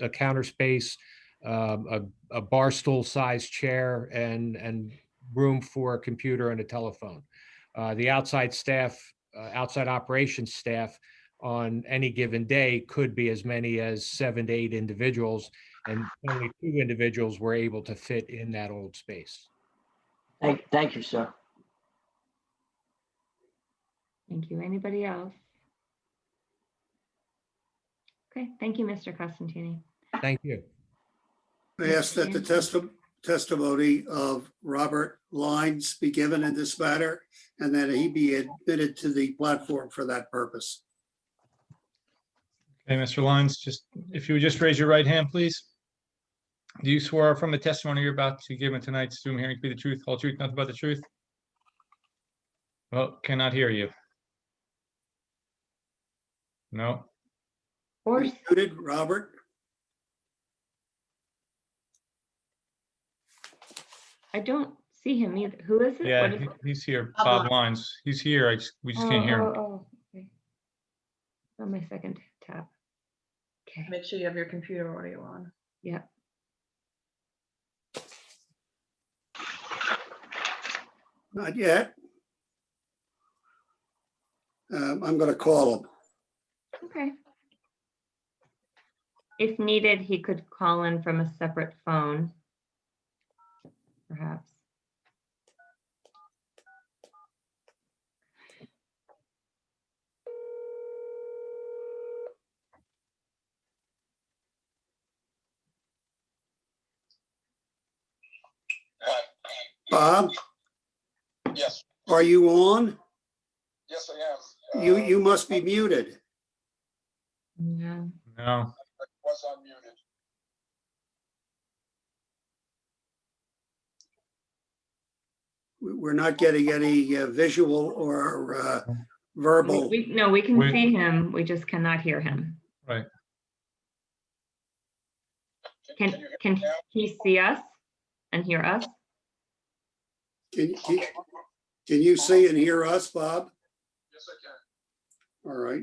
a counter space, um, a, a bar stool sized chair and, and room for a computer and a telephone. Uh, the outside staff, uh, outside operations staff on any given day could be as many as seven to eight individuals. And only two individuals were able to fit in that old space. Thank, thank you, sir. Thank you. Anybody else? Okay, thank you, Mr. Costantini. Thank you. I ask that the testi- testimony of Robert Lines be given in this matter and that he be admitted to the platform for that purpose. Okay, Mr. Lyons, just, if you would just raise your right hand, please. Do you swear from the testimony you're about to give in tonight's Zoom hearing to be the truth, whole truth, nothing but the truth? Well, cannot hear you. No, Or, Muted, Robert? I don't see him either. Who is it? yeah, What is he- it? he's here, Bob Bob Lyons, he's here, I just- we just can't Oh, hear him. oh, oh, okay. On my second tab. Okay, Make sure you have your computer audio on. yeah. Not yet. Um, I'm going to call him. Okay. If needed, he could call in from a separate phone. Perhaps. Bob, Uh, Yes, are you on? yes, I am. You, Uh, you must be muted. Yeah, No, I Was unmuted. We- We're not getting any uh, visual or uh, verbal. we, no, we can We- see him. We just cannot hear him. Can Can, you hear can me now? he see us and hear us? Can, can can you see and hear us, Bob? Yes, I can. All right.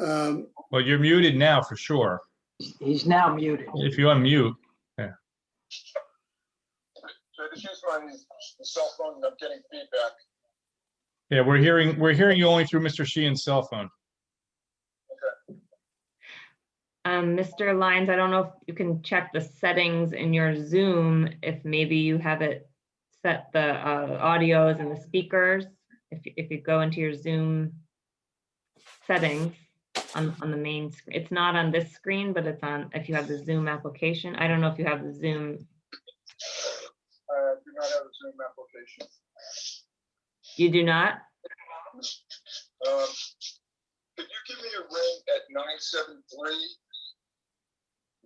Um, well, you're muted now for sure, He's- He's now muted. if you unmute. So I just use my cell phone and I'm getting feedback. Yeah, we're hearing, we're hearing you only through Mr. Sheehan's cell phone. Um, Mr. Lyons, I don't know if you can check the settings in your Zoom, if maybe you have it set the uh, audios and the speakers. If, you- if you go into your Zoom settings on, on the main, sc- it's not on this screen, but it's on, if you have the Zoom application. I don't know if you have the Zoom, I do not have a Zoom application. you do not? Um, Could you give me a ring at nine seven three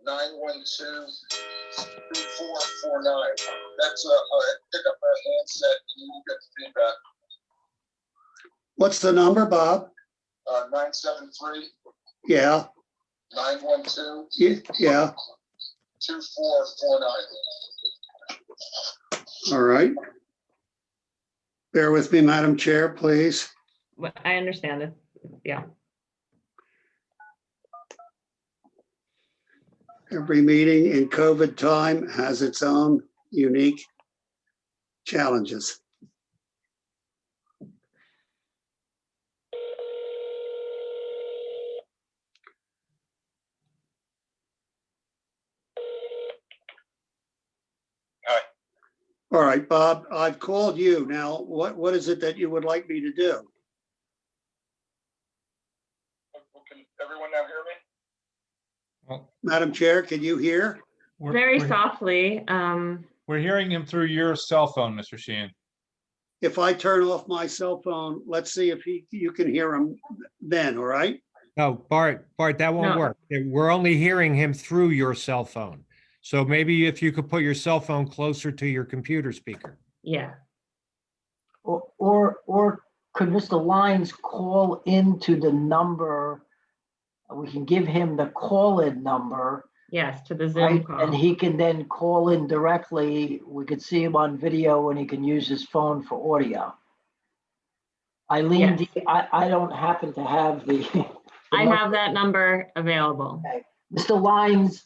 nine one two two four four nine? That's a, a- pick up a handset and you will get feedback. What's the number, Bob? Uh, nine seven three Yeah, nine one two ye- yeah, two four four nine. all right. Bear with me, Madam Chair, please. Well, I understand it. Yeah. Every meeting in COVID time has its own unique challenges. Hi. All right, Bob, I've called you. Now, what, what is it that you would like me to do? Can everyone now hear me? Madam Chair, can you hear? We're- Very we're- softly, um, We're hearing him through your cell phone, Mr. Sheehan. If I turn off my cell phone, let's see if he, you can hear him then, all right? No, Oh, Bart, Bart, that won't No. work. We're only hearing him through your cell phone. So maybe if you could put your cell phone closer to your computer speaker. yeah, Or, or, or could Mr. Lyons call into the number? We can give him the call-in number, yes, to the Zoom right? And call. he can then call in directly. We could see him on video and he can use his phone for audio. Eileen, Yes. do you- I, I don't happen to have the. I have that number available. Mr. Lyons